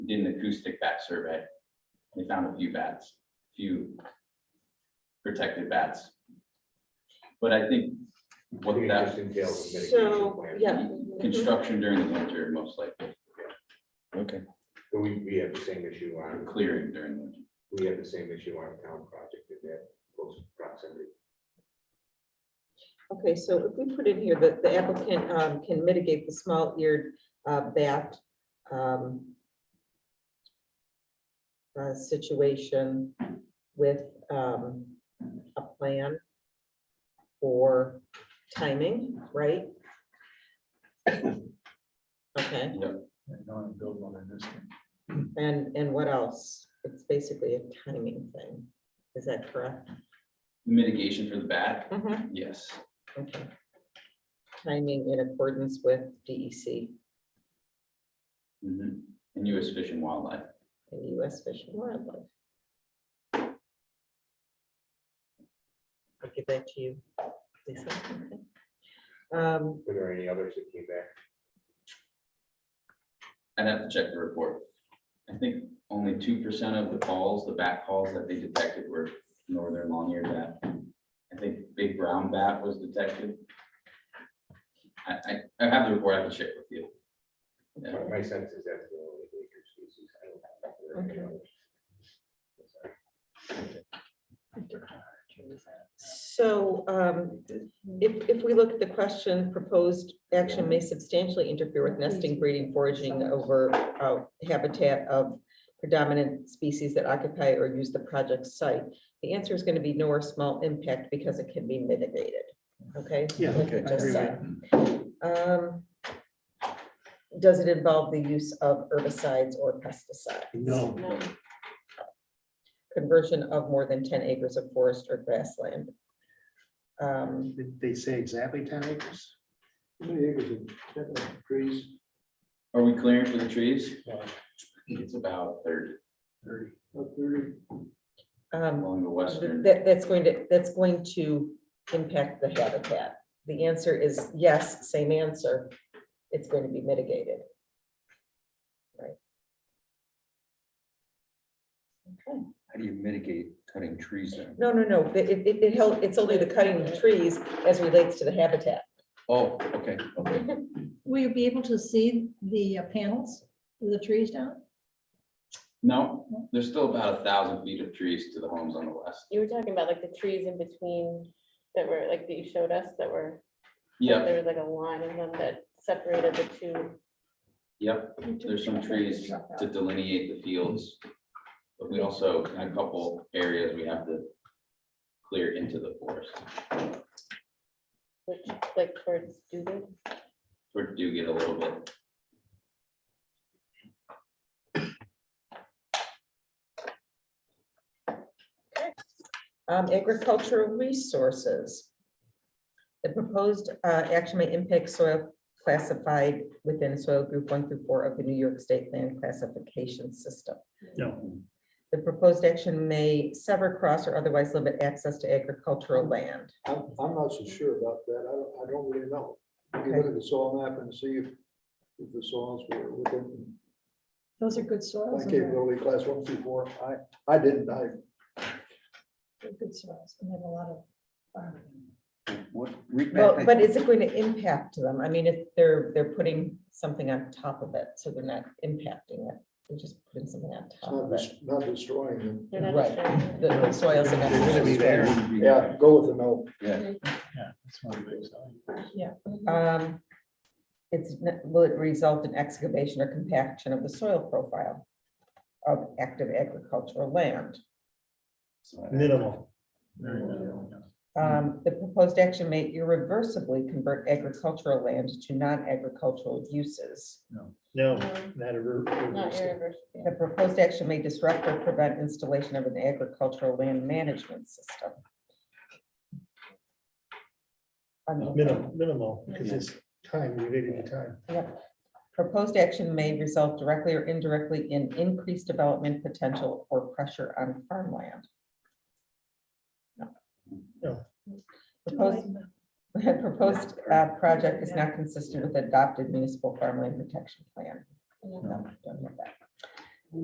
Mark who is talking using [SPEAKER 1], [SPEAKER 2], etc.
[SPEAKER 1] did an acoustic bat survey. They found a few bats, few protected bats. But I think what
[SPEAKER 2] Maybe it
[SPEAKER 1] that
[SPEAKER 2] just entails a mitigation
[SPEAKER 3] So,
[SPEAKER 2] plan.
[SPEAKER 3] yeah.
[SPEAKER 1] construction during the winter, most likely,
[SPEAKER 4] Okay,
[SPEAKER 2] But We, we have the same issue
[SPEAKER 1] or
[SPEAKER 2] on,
[SPEAKER 1] clearing during winter.
[SPEAKER 2] we have the same issue on a town project in that close proximity.
[SPEAKER 3] Okay, so if we put in here that the applicant um, can mitigate the small eared bat um, uh, situation with um, a plan for timing, right? Okay,
[SPEAKER 5] And now I'm building one in this one.
[SPEAKER 3] and, and what else? It's basically a timing thing. Is that correct?
[SPEAKER 1] Mitigation for the bat,
[SPEAKER 3] Mhm.
[SPEAKER 1] yes.
[SPEAKER 3] Okay. Timing in accordance with E DEC
[SPEAKER 1] Mhm. And US Fish and Wildlife.
[SPEAKER 3] and US Fish and Wildlife. I'll give that to you. Lisa. Okay. Um,
[SPEAKER 2] Were there any others that came back?
[SPEAKER 1] I'd have to check the report. I think only two percent of the calls, the bat calls that they detected were northern long-eared bat. I think big brown bat was detected. I, I, I have the report, I can check with you. Yeah.
[SPEAKER 2] My- My sense is that's the only major species. I don't think there are any
[SPEAKER 3] Okay.
[SPEAKER 2] others. Sorry.
[SPEAKER 3] So um, if, if we look at the question, proposed action may substantially interfere with nesting, breeding, foraging over uh, habitat of predominant species that occupy or use the project site. The answer is going to be no or small impact because it can be mitigated, okay?
[SPEAKER 5] Yeah,
[SPEAKER 3] Like we
[SPEAKER 5] okay, I
[SPEAKER 3] just
[SPEAKER 5] agree with
[SPEAKER 3] said. Um, Does it involve the use of herbicides or pesticides?
[SPEAKER 5] No,
[SPEAKER 3] Conversion of more than ten acres of forest or grassland? Um,
[SPEAKER 5] did they say exactly ten acres? How many acres of trees?
[SPEAKER 1] Are we clearing for the trees? It's about thirty
[SPEAKER 5] Thirty, about thirty.
[SPEAKER 3] um,
[SPEAKER 1] along the western.
[SPEAKER 3] That, that's going to, that's going to impact the habitat. The answer is yes, same answer. It's going to be mitigated. Right. Okay.
[SPEAKER 4] how do you mitigate cutting trees down?
[SPEAKER 3] No, no, no, it, it, it held, it's only the cutting of trees as relates to the habitat.
[SPEAKER 4] Oh, okay, okay.
[SPEAKER 6] Will you be able to see the uh, panels, of the trees down?
[SPEAKER 1] No, there's still about a thousand feet of trees to the homes on the west.
[SPEAKER 7] You were talking about like the trees in between that were like that you showed us that were.
[SPEAKER 1] Yep,
[SPEAKER 7] There was like a line in them that separated the two.
[SPEAKER 1] yep, there's some trees to delineate the fields. But we also, in a couple areas, we have to clear into the forest.
[SPEAKER 7] Which like towards Dugan.
[SPEAKER 1] We do get a little bit.
[SPEAKER 3] Um, agricultural resources. The proposed, uh, action may impact soil classified within soil group one through four of the New York State Land Classification System.
[SPEAKER 5] No,
[SPEAKER 3] The proposed action may sever, cross, or otherwise limit access to agricultural land.
[SPEAKER 8] I'm, I'm not so sure about that. I don't, I don't really know. You can
[SPEAKER 3] Okay.
[SPEAKER 8] look at the soil map and see if, if the soils were within
[SPEAKER 6] Those are good
[SPEAKER 8] plant
[SPEAKER 6] soils. and they're-
[SPEAKER 8] capability class one through four. I, I didn't, I,
[SPEAKER 6] they're Good soils, and they have a lot of. farming.
[SPEAKER 4] What, read back
[SPEAKER 3] Well,
[SPEAKER 4] that-
[SPEAKER 3] but is it going to impact them? I mean, if they're, they're putting something on top of it, so they're not impacting it. They're just putting something on
[SPEAKER 8] it's
[SPEAKER 3] top
[SPEAKER 8] not,
[SPEAKER 3] of it.
[SPEAKER 8] des- not destroying them.
[SPEAKER 7] They're not
[SPEAKER 3] Right.
[SPEAKER 7] showing
[SPEAKER 3] The- The soils are
[SPEAKER 5] they're gonna be
[SPEAKER 3] not.
[SPEAKER 5] there.
[SPEAKER 8] Yeah, go with the no.
[SPEAKER 5] Yeah, that's one of the biggest.
[SPEAKER 3] Um, It's, n- will it result in excavation or compaction of the soil profile of active agricultural land?
[SPEAKER 5] Minimal. Very minimal, yeah.
[SPEAKER 3] Um, the proposed action may irreversibly convert agricultural land to non-agricultural uses.
[SPEAKER 5] No,
[SPEAKER 7] No,
[SPEAKER 5] not a root.
[SPEAKER 7] Mm-hmm. Not irreversible.
[SPEAKER 3] The proposed action may disrupt or prevent installation of an agricultural land management system. I mean,
[SPEAKER 5] Minimal, minimal, because it's time, related to time.
[SPEAKER 3] Proposed action may result directly or indirectly in increased development potential or pressure on farmland. No.
[SPEAKER 5] No.
[SPEAKER 3] Proposed, proposed uh, project is not consistent with adopted municipal farmland protection plan. No, don't have that.